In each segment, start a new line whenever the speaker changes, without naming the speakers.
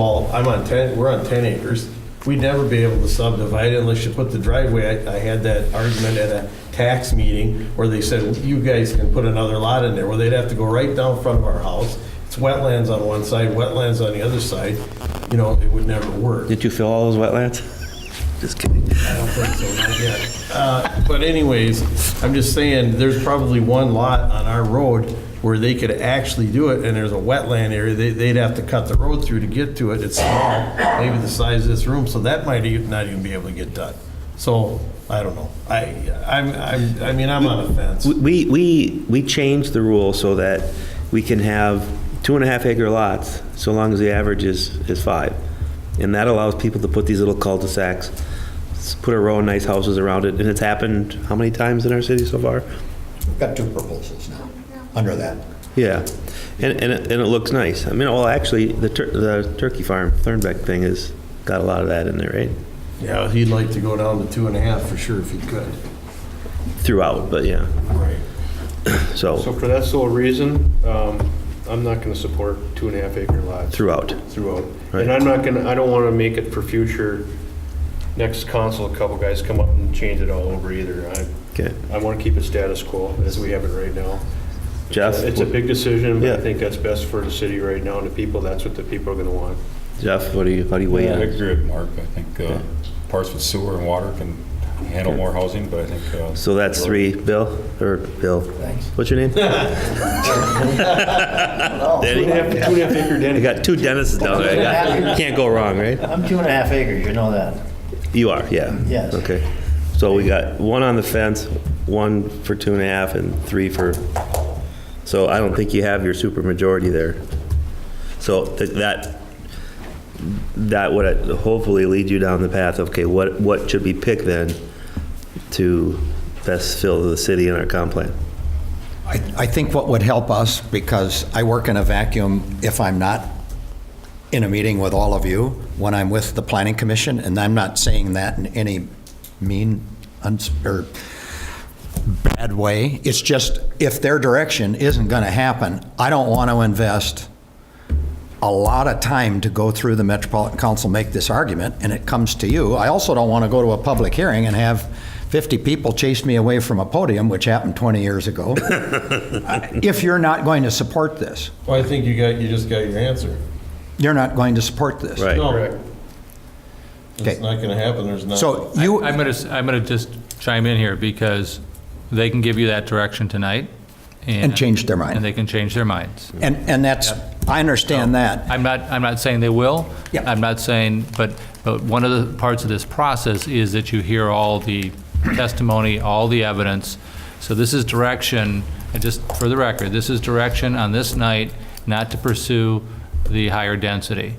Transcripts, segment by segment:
Well, I'm on 10, we're on 10 acres. We'd never be able to subdivide unless you put the driveway. I I had that argument at a tax meeting where they said, you guys can put another lot in there. Well, they'd have to go right down front of our house. It's wetlands on one side, wetlands on the other side. You know, it would never work.
Did you fill all those wetlands? Just kidding.
I don't think so, not yet. Uh, But anyways, I'm just saying, there's probably one lot on our road where they could actually do it, and there's a wetland area, they, they'd have to cut the road through to get to it, it's small, maybe the size of this room, so that might e- not even be able to get done. So, I don't know, I, I'm, I'm, I mean, I'm on the fence.
We, we, we changed the rule so that we can have two and a half acre lots, so long as the average is, is five. And that allows people to put these little cul-de-sacs, s- put a row of nice houses around it, and it's happened how many times in our city so far?
We've got two proposals now, under that.
Yeah, and, and it, and it looks nice. I mean, well, actually, the tur, the turkey farm, Thornbeck thing has got a lot of that in there, right?
Yeah, he'd like to go down to two and a half for sure if he could.
Throughout, but yeah,
Right.
so
So for that sole reason, um, I'm not going to support two and a half acre lots
throughout.
throughout.
Right.
And I'm not going to, I don't want to make it for future, next council, a couple guys come up and change it all over either. I,
Okay,
I want to keep it status quo as we have it right now.
Jeff?
It's a big decision, but
Yeah.
I think that's best for the city right now and the people. That's what the people are going to want.
Jeff, what do you, how do you weigh
I
in?
agree with Mark. I think uh, parts with sewer and water can handle more housing, but I think. uh,
So that's three, Bill, or Bill? Thanks. What's your name?
Two and a half, two and a half acre
I
den.
got two dentists down there. I got- Can't go wrong, right?
I'm two and a half acres, you know that.
You are, yeah.
Yes.
Okay. So we got one on the fence, one for two and a half, and three for, so I don't think you have your super majority there. So th- that, that would uh, hopefully lead you down the path of, okay, what, what should be picked then to best fill the city in our comp plan?
I, I think what would help us, because I work in a vacuum if I'm not in a meeting with all of you, when I'm with the planning commission, and I'm not saying that in any mean, uns, or bad way. It's just, if their direction isn't gonna happen, I don't want to invest a lot of time to go through the Metropolitan Council, make this argument, and it comes to you. I also don't want to go to a public hearing and have 50 people chase me away from a podium, which happened 20 years ago, if you're not going to support this.
Well, I think you got, you just got your answer.
You're not going to support this.
Right.
No,
Correct.
Okay.
it's not gonna happen, there's not.
So you,
I'm going to, I'm going to just chime in here because they can give you that direction tonight.
And change their mind.
And they can change their minds.
and, and that's, I understand that.
I'm not, I'm not saying they will.
Yeah.
I'm not saying, but, but one of the parts of this process is that you hear all the testimony, all the evidence. So this is direction, and just for the record, this is direction on this night not to pursue the higher density.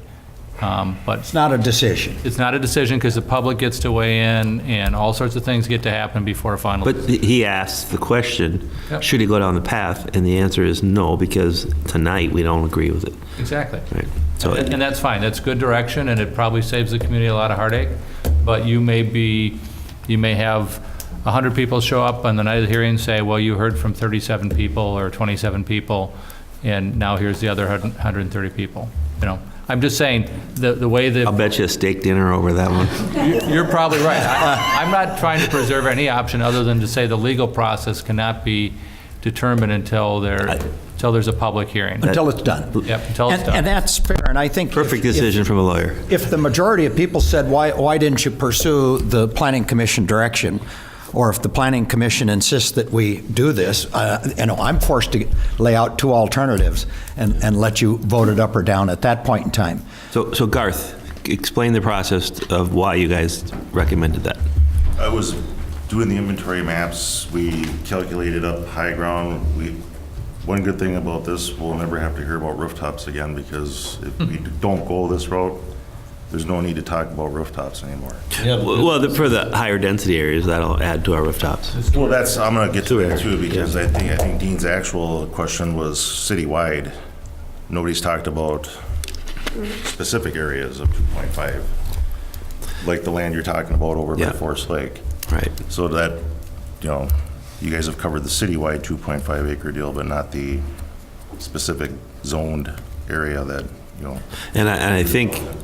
Um, But
It's not a decision.
it's not a decision because the public gets to weigh in and all sorts of things get to happen before a final.
But he asked the question,
Yep.
should he go down the path? And the answer is no, because tonight we don't agree with it.
Exactly.
Right. So-
And and that's fine, that's good direction, and it probably saves the community a lot of heartache, but you may be, you may have 100 people show up on the night of the hearing and say, well, you heard from 37 people or 27 people, and now here's the other 130 people, you know? I'm just saying, the, the way that
I'll bet you a steak dinner over that one.
you- You're probably right. I- I'm not trying to preserve any option other than to say the legal process cannot be determined until there, until there's a public hearing.
Until it's done.
Yep, until it's
And-
done.
And that's fair, and I think. if-
Perfect
if-
decision from a lawyer.
if the majority of people said, why, why didn't you pursue the planning commission direction? Or if the planning commission insists that we do this, uh, you know, I'm forced to lay out two alternatives and, and let you vote it up or down at that point in time.
So, so Garth, explain the process of why you guys recommended that.
I was doing the inventory maps, we calculated up high ground, we, one good thing about this, we'll never have to hear about rooftops again, because if we don't go this route, there's no need to talk about rooftops anymore.
Yeah, but-
Well, the- for the higher density areas, that'll add to our rooftops.
Well, that's, I'm gonna get to
Sure.
that too, because I think, I think Dean's actual question was citywide. Nobody's talked about specific areas of 2.5, like the land you're talking about over
Yeah.
by Forest Lake.
Right.
So that, you know, you guys have covered the citywide 2.5 acre deal, but not the specific zoned area that you know.
And I, and I think